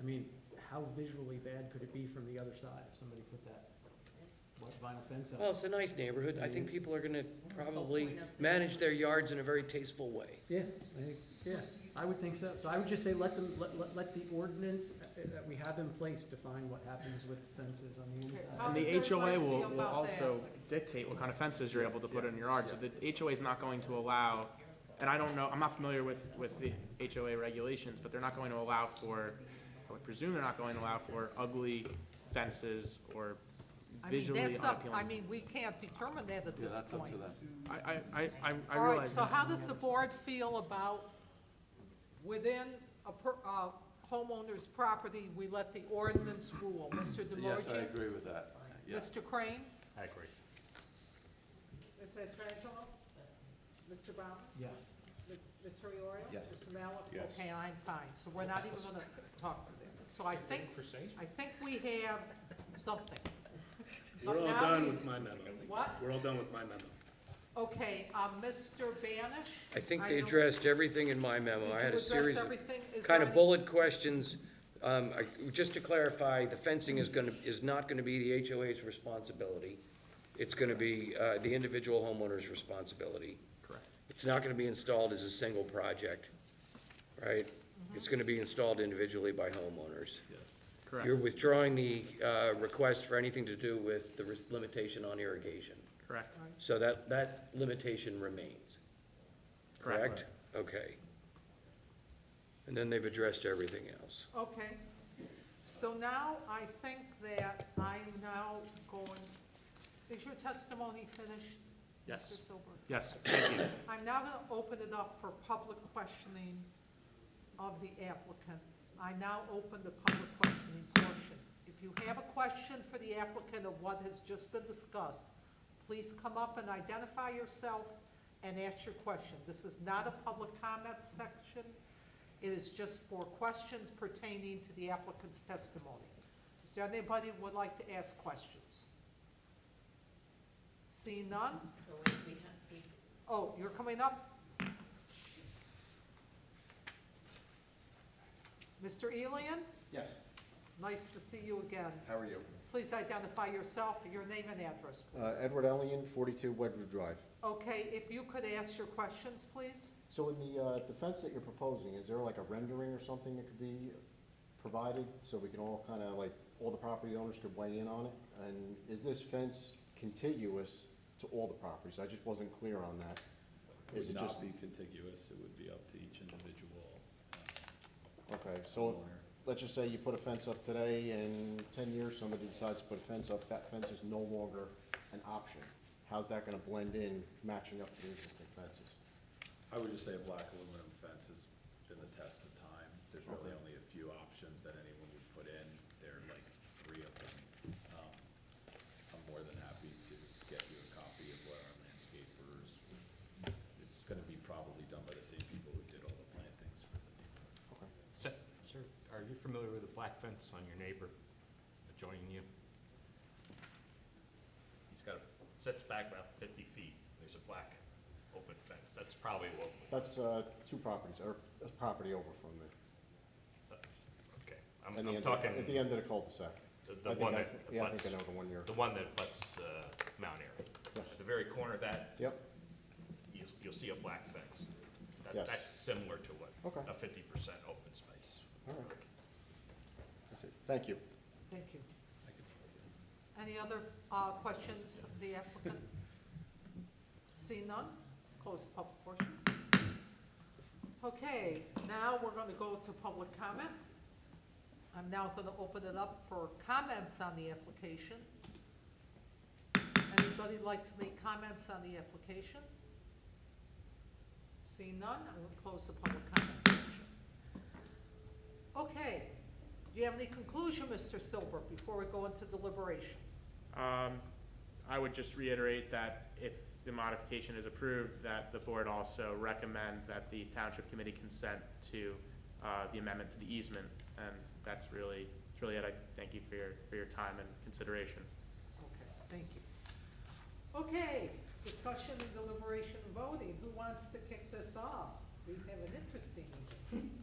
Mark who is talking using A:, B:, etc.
A: I mean, how visually bad could it be from the other side if somebody put that white vinyl fence
B: Well,
A: up?
B: it's a nice neighborhood. I think people are gonna probably
C: Point of the-
B: manage their yards in a very tasteful way.
A: Yeah, I think, yeah, I would think so. So I would just say let them, let, let, let the ordinance uh, uh, that we have in place define what happens with fences on the inside.
D: How
E: And
D: does
E: the HOA
D: everybody
E: will,
D: feel
E: will
D: about that?
E: also dictate what kind of fences you're able to put in your yard, so the HOA is not going to allow, and I don't know, I'm not familiar with, with the HOA regulations, but they're not going to allow for, I would presume they're not going to allow for ugly fences or
D: I mean,
E: visually
D: that's up, I
E: unappealing.
D: mean, we can't determine that at
F: Yeah,
D: this
F: that's up
D: point.
F: to them.
E: I, I, I- I, I
D: All right,
E: realize,
D: so
E: that.
D: how does the board feel about within a per, uh, homeowner's property, we let the ordinance rule? Mr.
F: Yes, I
D: Demorchi?
F: agree with that. Yes,
D: Mr. Crane?
G: I agree.
D: Ms. Frenchco? Mr. Brown?
A: Yeah.
D: Mr. Iorio?
F: Yes.
D: Mr. Mallon?
G: Yes.
D: Okay, I'm fine, so we're not even gonna talk to them. So I think, I think we have something.
G: We're
D: But
G: all
D: now
G: done
D: we-
G: with my memo.
D: What?
G: We're all done with my memo.
D: Okay, uh, Mr. Banish?
B: I think
D: I
B: they
D: don't-
B: addressed everything in my memo. I had a
D: Did you
B: series
D: address
B: of
D: everything? Is
B: kind
D: there
B: of
D: any-
B: bullet questions. Um, I- just to clarify, the fencing is gonna, is not gonna be the HOA's responsibility. It's gonna be, uh, the individual homeowner's responsibility.
E: correct.
B: It's not gonna be installed as a single project, right?
D: Mm-hmm.
B: It's gonna be installed individually by homeowners.
E: Correct.
B: You're withdrawing the, uh, request for anything to do with the res- limitation on irrigation.
E: Correct,
B: So that, that limitation remains, correct?
E: correct.
B: Okay. And then they've addressed everything else.
D: Okay, so now I think that I'm now going, is your testimony finished?
E: Yes.
D: Mr. Silber?
E: Yes, thank you.
D: I'm now going to open it up for public questioning of the applicant. I now open the public questioning portion. If you have a question for the applicant of what has just been discussed, please come up and identify yourself and ask your question. This is not a public comment section. It is just for questions pertaining to the applicant's testimony. Is there anybody who would like to ask questions? See none?
C: So we, we have, we
D: Oh, you're coming up? Mr. Elian,
H: Yes,
D: nice to see you again.
H: how are you?
D: Please identify yourself, your name and address,
H: Uh,
D: please.
H: Edward Ellion, forty-two Wedgewood Drive.
D: Okay, if you could ask your questions, please?
H: So in the, uh, the fence that you're proposing, is there like a rendering or something that could be provided? So we can all kind of like, all the property owners could weigh in on it? And is this fence contiguous to all the properties? I just wasn't clear on that. Is
F: would
H: it
F: not
H: just,
F: be contiguous, it would be up to each individual uh,
H: okay, so
F: homeowner.
H: let's just say you put a fence up today and ten years somebody decides to put a fence up, that fence is no longer an option. How's that gonna blend in, matching up to the existing fences?
F: I would just say a black aluminum fence has been the test of time. There's really
H: Okay.
F: only a few options that anyone would put in. There are like three of them. Um, I'm more than happy to get you a copy of what our landscapers, it's gonna be probably done by the same people who did all the plantings for the neighborhood.
G: Sir, are you familiar with the black fence on your neighbor adjoining you? He's got, a- sits back about fifty feet. There's a black open fence. That's probably what,
H: That's uh, two properties, or a property over from me.
G: okay.
H: at
G: I'm,
H: the
G: I'm
H: end of-
G: talking
H: At the end of the cul-de-sac.
G: the-
H: I
G: the
H: think
G: one
H: I-
G: that
H: Yeah, I think I
G: butts-
H: know the one you're,
G: the one that butts uh, Mount Airy.
H: Yes.
G: At the very corner of that,
H: yep,
G: you'll, you'll see a black fence. That-
H: Yes.
G: That's similar to what,
H: Okay.
G: a fifty percent open space.
H: all right. That's it. Thank you.
D: Thank you. Any other uh, questions of the applicant? See none? Close the public portion. Okay, now we're going to go to public comment. I'm now going to open it up for comments on the application. Anybody like to make comments on the application? See none, I will close the public comment section. Okay, do you have any conclusion, Mr. Silver, before we go into deliberation?
E: Um, I would just reiterate that if the modification is approved, that the board also recommend that the township committee consent to, uh, the amendment to the easement. And that's really, that's really it. I thank you for your, for your time and consideration.
D: Okay, thank you. Okay, discussion and deliberation and voting, who wants to kick this off? We have an interesting meeting.